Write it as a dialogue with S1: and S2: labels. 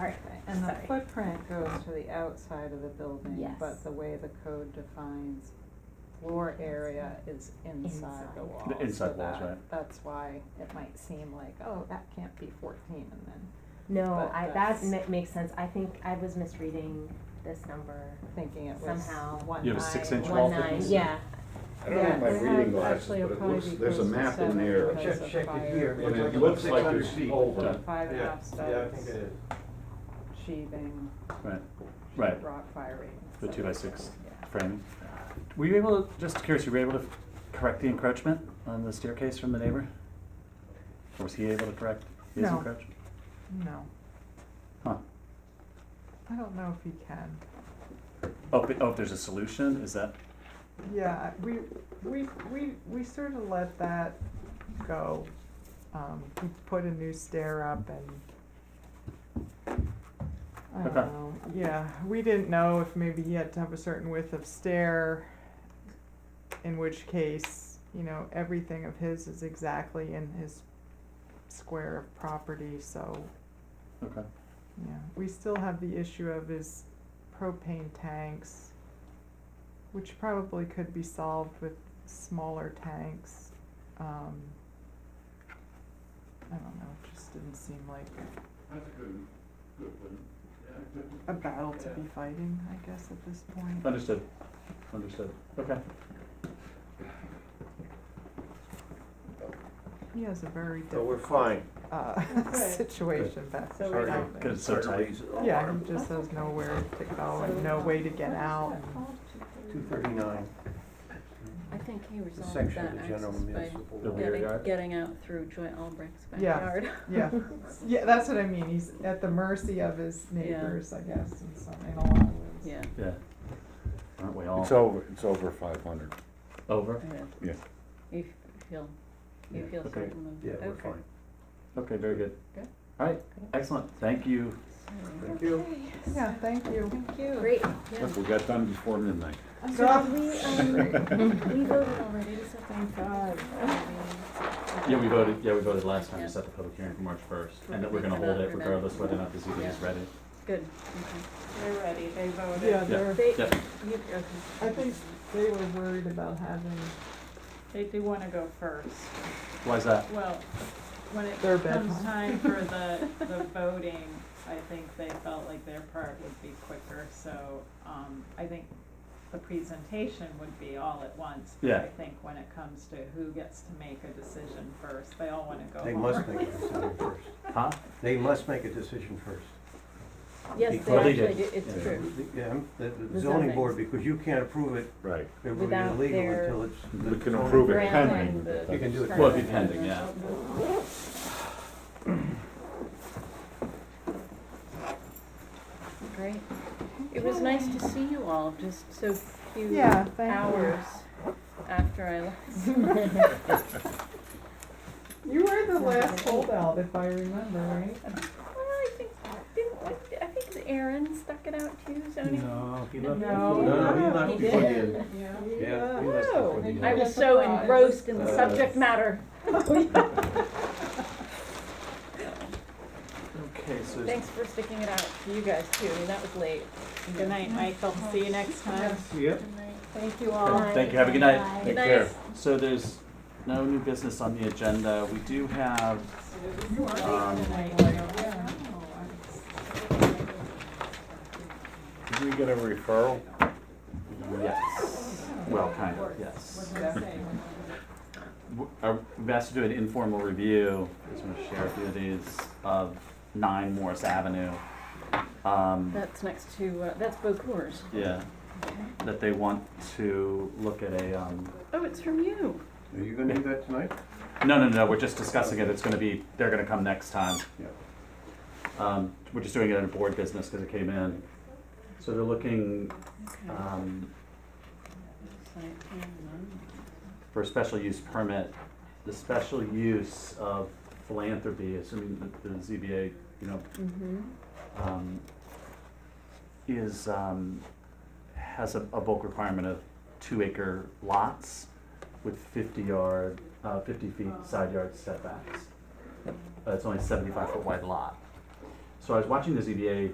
S1: Alright,
S2: And the
S1: sorry.
S2: footprint goes to the outside of the building,
S1: Yes.
S2: but the way the code defines floor area is inside the
S1: Inside.
S2: wall.
S3: The inside walls, right.
S2: That's why it might seem like, oh, that can't be fourteen, and then
S1: No,
S2: But
S1: I, that
S2: that's-
S1: ma- makes sense, I think I was misreading this number
S2: thinking it was
S1: Somehow.
S2: one nine.
S3: You have a six-inch
S2: or-
S3: wall
S1: one nine,
S3: thickness?
S1: yeah,
S4: I don't have my
S2: Yeah,
S4: reading glasses,
S2: actually,
S4: but
S2: it'll
S4: it
S2: probably
S4: looks,
S2: be
S4: there's a
S2: close to
S4: map in
S2: seven
S4: there.
S2: because
S5: Check,
S2: of
S5: check it
S2: fire
S5: here.
S3: And it
S5: It's
S3: looks like
S5: 600
S3: there's
S5: feet.
S3: over.
S5: Yeah.
S2: Five and a half
S5: Yeah, yeah, I think it is.
S2: Sheathing,
S3: Right, right,
S2: rock firing.
S3: the two by six
S2: Yeah.
S3: framing. Were you able, to just curious, you were able to correct the encroachment on the staircase from the neighbor? Or was he able to correct his
S6: No.
S3: encroachment?
S6: No,
S3: Huh,
S6: I don't know if he can.
S3: oh, but, oh, there's a solution, is that,
S6: Yeah, we, we, we, we sort of let that go. Um, we put a new stair up and, I don't
S3: Okay.
S6: know, yeah, we didn't know if maybe he had to have a certain width of stair, in which case, you know, everything of his is exactly in his square of property, so,
S3: okay.
S6: yeah. We still have the issue of his propane tanks, which probably could be solved with smaller tanks. Um, I don't know, it just didn't seem like
S4: That's a good, good one.
S6: a battle to be fighting, I guess, at this point.
S3: Understood, understood, okay.
S6: He has a very
S5: So we're
S6: difficult,
S5: fine.
S6: uh, situation back
S1: So we
S6: there.
S1: don't-
S3: Good, so tight.
S6: Yeah, he just has nowhere to go Oh, and no way to get out.
S5: Two thirty-nine,
S7: I think he
S5: the
S7: resolved
S5: section
S7: that
S5: of the general
S7: access
S5: municipal.
S3: The
S7: by
S3: rear
S7: getting,
S3: yard?
S7: getting out through Joy Albrecht's
S6: Yeah.
S7: backyard.
S6: Yeah, yeah, that's what I mean, he's at the mercy of his neighbors, I guess, in some, in a lot of ways.
S7: Yeah.
S3: Yeah. Aren't we all?
S4: It's over, it's over five hundred.
S3: Over?
S7: Yeah.
S4: Yeah.
S7: You f- feel, you feel
S3: okay.
S7: certain of,
S5: Yeah,
S7: okay.
S5: we're fine.
S3: Okay, very good.
S7: Good.
S3: All right, excellent, thank you.
S7: So-
S5: Thank you.
S6: Yeah, thank you.
S2: Thank you.
S1: great.
S7: Yeah.
S4: Look, we got done before midnight.
S6: So-
S7: um, We voted already, so thank God.
S3: Yeah, we voted, yeah, we voted last time
S7: Yeah.
S3: to set the public hearing for March first, and
S7: Right,
S3: that we're
S7: we
S3: gonna hold
S7: cannot
S3: it
S7: remember.
S3: regardless whether or not the ZBA has
S7: Yeah.
S3: read it.
S7: Good,
S1: They're ready, they voted.
S6: Yeah,
S3: Yeah.
S6: they're,
S7: okay. They,
S3: Yep.
S7: you, okay.
S6: I think they were worried about having
S8: They do wanna go first.
S3: Why is that?
S8: Well, when it
S6: Their bed,
S8: comes
S6: huh?
S8: time for the, the voting, I think they felt like their part would be quicker, so, um, I think the presentation would be all at once. but
S3: Yeah.
S8: I think when it comes to who gets to make a decision first, they all wanna go
S5: They
S8: home
S5: must
S8: early.
S5: make a decision first.
S3: Huh?
S5: They must make a decision first.
S7: Yes, they
S3: Well, they
S7: actually
S3: did.
S7: do, it's
S3: Yeah.
S7: true.
S5: Yeah, the- the
S7: The
S5: zoning
S7: zoning.
S5: board, because you can't approve it,
S4: Right.
S5: it will be
S7: Without
S5: illegal
S7: their-
S5: until it's.
S4: We
S5: the
S4: can
S5: zoning-
S4: approve it
S7: Grant
S4: pending.
S7: plan.
S4: but
S5: You can do it.
S4: that's-
S3: Well, it'd be pending, yeah.
S7: Great. It was nice to see you all, just so few
S6: Yeah, thank you.
S7: hours after I left.
S6: You were the last holdout, if I remember, right?
S7: Well, I think, didn't, what, I think Aaron stuck it out too, zoning.
S5: No, he left.
S6: No.
S5: No, he left
S7: Oh, He
S5: before the
S7: did.
S5: end.
S6: Yeah.
S5: Yeah, he left before the end.
S7: I was so engrossed in the
S5: Uh,
S7: subject matter.
S3: Okay, so.
S7: Thanks for sticking it out to you guys too, I mean, that was late.
S8: Good night, Michael, see you next time.
S5: Yeah.
S8: Thank you all.
S3: Okay, Thank you, have a good night.
S7: Good night.
S3: So there's no new business on the agenda. We do have, um,
S4: Did we get a referral?
S3: yes, well, kind of, yes. W- are- We've asked to do an informal review, just want to share a few of these, of nine Morris Avenue. Um,
S7: That's next to, uh, that's Bocours.
S3: Yeah, that they want to look at a, um,
S7: Oh, it's from you.
S5: Are you gonna do that tonight?
S3: no, no, no, we're just discussing it. It's gonna be, they're gonna come next time.
S5: Yeah.
S3: Um, we're just doing it in a board business because it came in. So they're looking,
S7: Okay.
S3: um,
S7: Site plan, no.
S3: for a special use permit, the special use of philanthropy, assuming that the ZBA, you know, um, is, um, has a, a bulk requirement of two acre lots with fifty yard, uh, fifty feet side yard setbacks. Uh, it's only a seventy-five foot wide lot. So I was watching the ZBA